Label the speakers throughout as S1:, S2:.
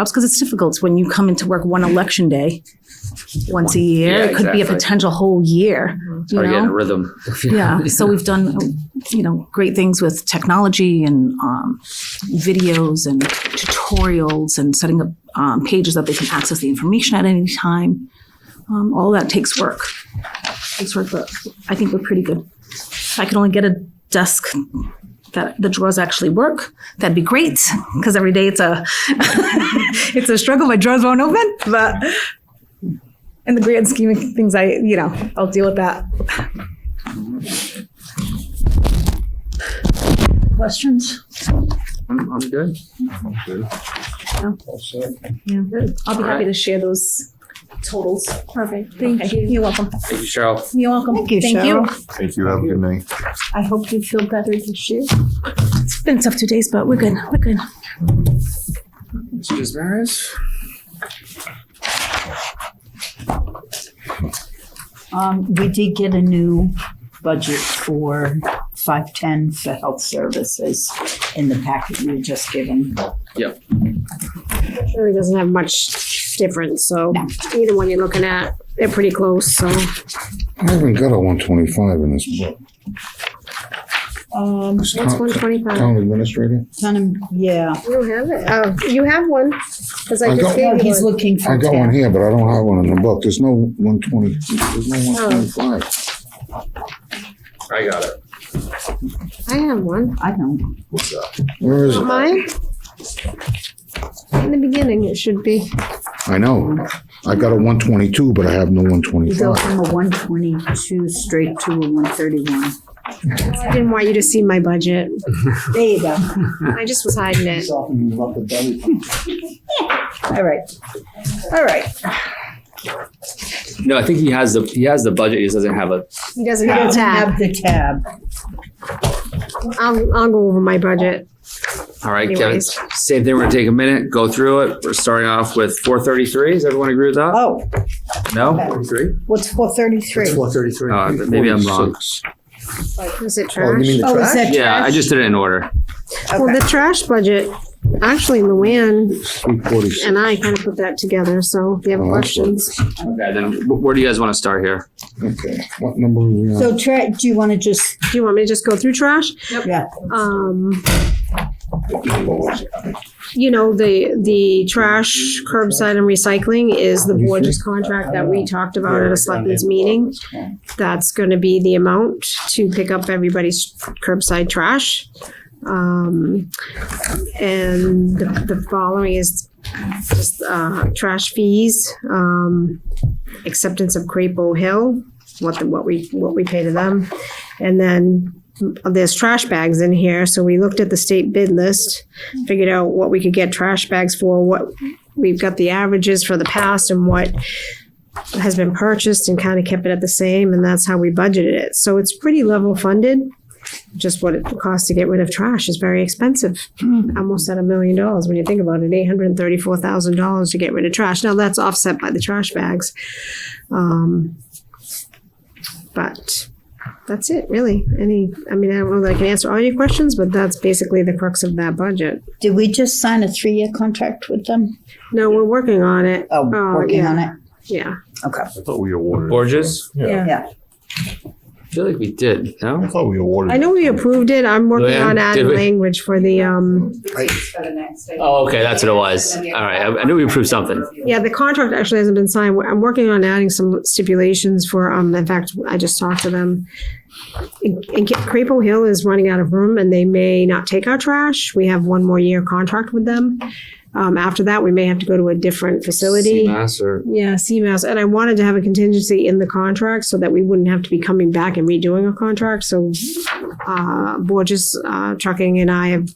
S1: jobs because it's difficult when you come into work one election day once a year.
S2: Yeah,
S1: it could be a
S2: exactly. Mm-hmm.
S1: potential whole year.
S2: It's
S1: You
S2: hard to get in a
S1: know?
S2: rhythm.
S1: Yeah. So we've done, you know, great things with technology and um, videos and tutorials and setting up um, pages that they can access the information at any time. Um, all that takes work. Takes work, but I think we're pretty good. If I could only get a desk that the drawers actually work, that'd be great. Because every day it's a it's a struggle. My drawers won't open, but in the grand scheme of things, I you know I'll deal with that. Questions?
S2: I'm, I'm good.
S1: Yeah, I'll be happy
S2: Alright.
S1: to share those totals.
S3: Perfect. Thank you.
S1: You're welcome.
S2: Thank you, Cheryl.
S1: You're welcome.
S3: Thank you,
S4: Thank you. Have a good night.
S3: I hope you feel better this year.
S1: It's been tough two days, but we're good. We're good.
S2: Mr. Dismaris?
S5: Um, we did get a new budget for five ten for health services in the packet you were just given.
S3: It really doesn't have much difference, so either one you're looking at, they're pretty close, so.
S6: I haven't got a one twenty-five in this book.
S5: Um,
S6: It's
S3: What's
S6: town-
S3: one twenty-five?
S6: Town administrator?
S5: kind of, yeah.
S3: You don't have it? Oh, you have one, cause I
S6: I
S3: just
S6: don't-
S5: No,
S3: gave
S5: he's
S3: you one.
S5: looking
S6: I
S5: for
S6: got one
S5: town.
S6: here, but I don't have one in the book. There's no one twenty, there's no one twenty-five.
S2: I got it.
S3: I have one.
S5: I don't.
S6: Where is it?
S3: Mine? In the beginning, it should be.
S6: I know. I got a one twenty-two, but I have no one
S5: You go
S6: twenty-five.
S5: from a one twenty-two straight to a one thirty-one.
S3: I didn't want you to see my budget.
S5: There you go.
S3: I just was hiding it.
S5: All right. All right.
S2: No, I think he has the he has the budget. He just doesn't have a.
S3: He doesn't have a tab.
S5: Have the tab.
S3: I'll, I'll go over my budget.
S2: All right, Kevin.
S3: Anyways.
S2: Same thing. We're gonna take a minute, go through it. We're starting off with 433. Does everyone agree with that?
S5: Oh,
S2: No, three.
S5: what's four thirty-three? Oh,
S7: thirty-three.
S2: Uh, maybe I'm wrong.
S3: Is it
S6: Oh, you
S3: trash?
S6: mean the
S5: is
S6: trash?
S5: that trash?
S2: Yeah, I just did it in order.
S3: Well,
S5: Okay.
S3: the trash budget, actually Luann
S6: Three forty-six.
S3: and I kind of put that together, so if you have
S6: Oh, that's what-
S3: questions.
S2: Okay, then wh- where do you guys want to start here?
S6: Okay. What number are we on?
S5: So tra, do you want to just,
S3: Do you want me to just go through trash?
S5: yeah,
S3: Um, you know, the, the trash curbside and recycling is the Borges contract that we talked about at a selectmen's meeting. That's gonna be the amount to pick up everybody's curbside trash. Um, and the, the following is just, uh, trash fees, um, acceptance of Crapo Hill, what, the- what we, what we pay to them. And then there's trash bags in here, so we looked at the state bid list, figured out what we could get trash bags for, what we've got the averages for the past and what has been purchased and kind of kept it at the same, and that's how we budgeted it. So it's pretty level funded. Just what it costs to get rid of trash is very expensive, almost at a million dollars when you think about it, eight hundred and thirty-four thousand dollars to get rid of trash. Now, that's offset by the trash bags. Um, But that's it, really. Any, I mean, I don't know that I can answer all your questions, but that's basically the crux of that budget.
S5: did we just sign a three-year contract with them?
S3: No, we're working on it.
S5: Oh,
S3: Oh,
S5: working
S3: yeah.
S5: on it?
S3: Yeah.
S5: Okay.
S4: I thought we awarded.
S2: Borges?
S3: Yeah.
S2: I feel like we did.
S4: I
S2: No.
S4: thought we awarded.
S3: I know we approved it. I'm working
S2: Luann,
S3: on
S2: did
S3: adding
S2: we?
S3: language for the, um,
S2: Oh, okay, that's what it was. All right, I, I knew we approved something.
S3: yeah, the contract actually hasn't been signed. I'm working on adding some stipulations for, um, in fact, I just talked to them. And and Ca- Crapo Hill is running out of room and they may not take our trash. We have one more year contract with them. Um, after that, we may have to go to a different facility.
S2: CMAS or
S3: Yeah, CMAS, and I wanted to have a contingency in the contract so that we wouldn't have to be coming back and redoing a contract, so, uh, Borges, uh, Trucking and I have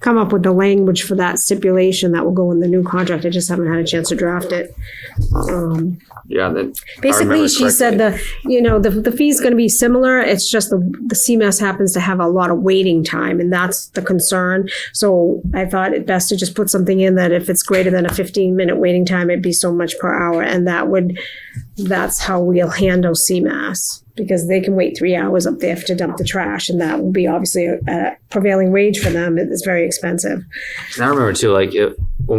S3: come up with the language for that stipulation that will go in the new contract, I just haven't had a chance to draft it. Um,
S2: yeah, that
S3: Basically,
S2: remember
S3: she said the, you know, the, the fee's gonna be similar, it's just the, the CMAS happens to have a lot of waiting time, and that's the concern. So I thought it best to just put something in that if it's greater than a fifteen minute waiting time, it'd be so much per hour, and that would, that's how we'll handle CMAS. Because they can wait three hours up there to dump the trash, and that will be obviously a- a prevailing wage for them, it's very expensive.
S2: And I remember too, like it, when we